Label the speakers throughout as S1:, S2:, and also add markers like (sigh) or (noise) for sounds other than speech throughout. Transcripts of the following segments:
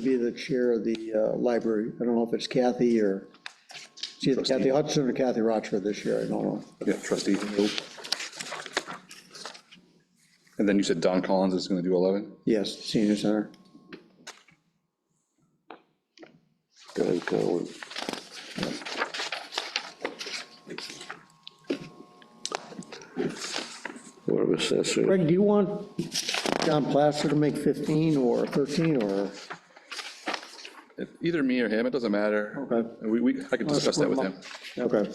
S1: be the chair of the uh, library. I don't know if it's Kathy or, it's either Kathy Hudson or Kathy Rochford this year, I don't know.
S2: Yeah, trustee Hope. And then you said Don Collins is going to do 11?
S1: Yes, senior center.
S3: Going forward. Board of Assessors,
S1: Greg, do you want John Plaster to make 15 or 13 or?
S2: If- Either me or him, it doesn't matter.
S1: Okay.
S2: We, we, I can discuss that with him.
S1: Okay,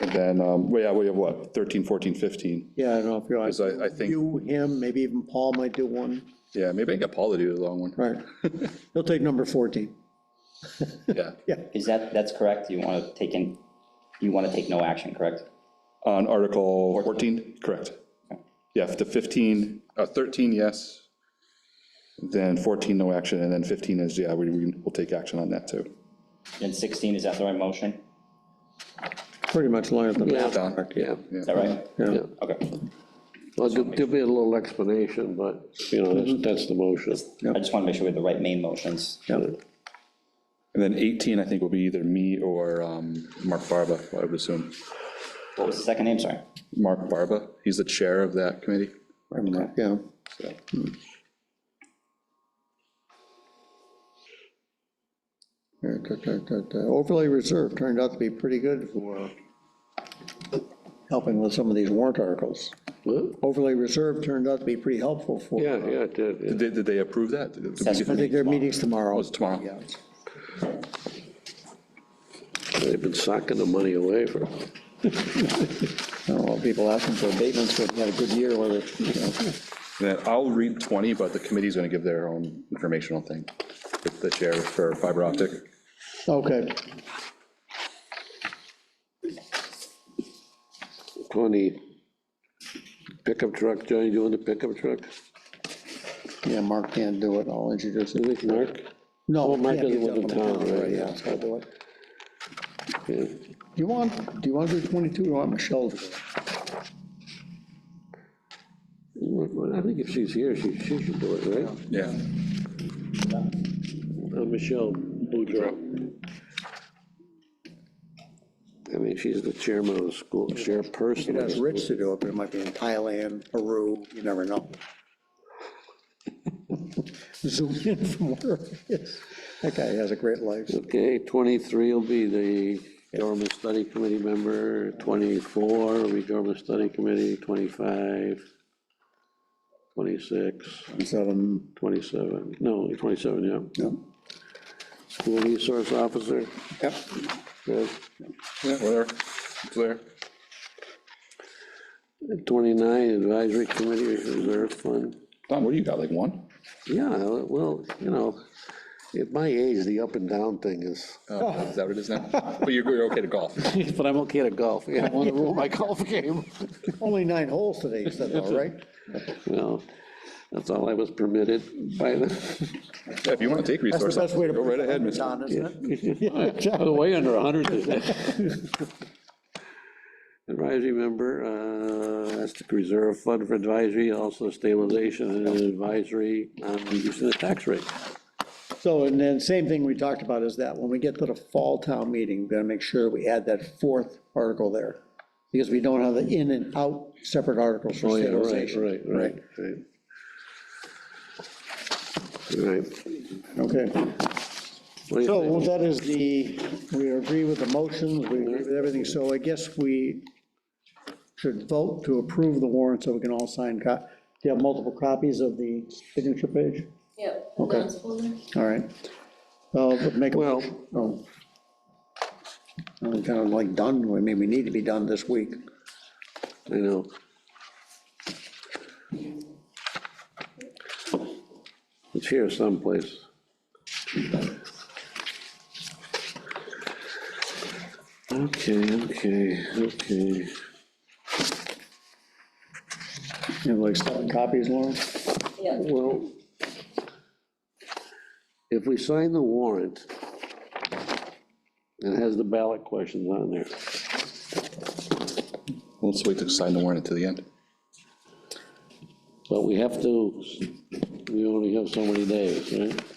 S2: And then, um, well, yeah, we have what, 13, 14, 15?
S1: yeah, I don't know if you're.
S2: Because I- I think-
S1: You, him, maybe even Paul might do one,
S2: Yeah, maybe I can get Paul to do the long one. (laughs)
S1: right? He'll take number 14.
S2: Yeah.
S4: Is that, that's correct? You want to take in, you want to take no action, correct?
S2: On Article 14, correct. Yeah, the 15, uh, 13, yes. Then 14, no action, and then 15 is, yeah, we, we- we'll take action on that too.
S4: And 16, is that the right motion?
S1: Pretty much line up the map.
S2: Don,
S3: yeah,
S4: Is that right?
S3: yeah.
S4: Okay.
S3: Well, there'll there'll be a little explanation, but, you know, that's, that's the motion.
S4: I just want to make sure we have the right main motions.
S2: And then 18, I think, will be either me or um, Mark Barba, I would assume.
S4: What was the second name, sorry?
S2: Mark Barba, he's the chair of that committee.
S1: Yeah,
S2: so.
S1: Hmm. Yeah, da, da, da, da. overlay reserve turned out to be pretty good for helping with some of these warrant articles.
S3: Huh?
S1: Overlay reserve turned out to be pretty helpful for, I
S3: Yeah, yeah, it did, yeah.
S2: Did, they- did they approve that? Did- did we get-
S1: think their meeting's tomorrow.
S2: Oh, it's tomorrow.
S1: Yeah.
S3: they've been socking the money away for,
S1: I don't know, people asking for abatements, but we had a good year with it. you know.
S2: Then I'll read 20, but the committee's going to give their own informational thing, with the chair for fiber optic.
S1: Okay,
S3: 20 pickup truck, Johnny doing the pickup truck?
S1: yeah, Mark can't do it, I'll introduce
S3: I
S1: it.
S3: think Mark,
S1: No,
S3: Well, Mark
S1: can't,
S3: doesn't
S1: he's up on
S3: live in
S1: the
S3: town,
S1: calendar,
S3: right?
S1: Yeah, so I'll do it.
S3: yeah.
S1: Do you want, do you want to do 22, or do you want Michelle to do it?
S3: Well, I think if she's here, she, she should do it, right?
S2: Yeah.
S3: Uh, Michelle Boudreau. I mean, she's the chairman of the school,
S1: It
S3: chairperson. of the
S1: has
S3: school.
S1: Rich to do it, but it might be in Thailand, Peru, you never know. (laughs) Zoom in from where it is. That guy has a great life.
S3: Okay, 23 will be the government study committee member, 24 will be government study committee, 25, 26,
S1: So, um,
S3: 27, no, 27, yeah.
S1: yeah.
S3: School resource officer,
S1: Yep.
S3: good.
S2: Yeah, whatever. It's there.
S3: 29, advisory committee, reserve fund.
S2: Don, what do you got, like one?
S3: Yeah, well, you know, at my age, the up and down thing (laughs) is,
S1: Oh.
S2: Uh, Is that what it is now? But you're, you're okay to golf.
S3: but I'm okay to golf, yeah, I want to rule my (laughs) golf game.
S1: Only nine holes today, you said, though, right?
S3: Well, that's all I was permitted by the, (laughs)
S2: Yeah, If you want to take
S1: That's
S2: resources,
S1: the best way to.
S2: go right ahead, Mr.
S1: Don, isn't it?
S3: Oh, way under 100 (laughs) today. Advisory member, uh, that's the reserve fund for advisory, also stabilization and advisory on reducing the tax rate.
S1: So, and then same thing we talked about is that when we get to the fall town meeting, we're gonna make sure we add that fourth article there. Because we don't have the in and out separate articles for
S3: Oh, yeah, right,
S1: stabilization.
S3: right, right, right. Right,
S1: Okay.
S3: what do you
S1: So
S3: think?
S1: well, that is the, we agree with the motions, we agree with everything, so I guess we should vote to approve the warrant so we can all sign. co- Do you have multiple copies of the signature page?
S5: Yeah.
S1: Okay. All right. Uh, but make, a-
S3: Well,
S1: oh. I'm kind of like done, I mean, we need to be done this week.
S3: I know. It's here someplace. Okay, okay, okay.
S1: You have like seven copies, Lauren?
S5: Yeah,
S3: Well, if we sign the warrant, it has the ballot questions on there.
S2: Let's wait to sign the warrant until the end.
S3: But we have to, we only have so many days, right?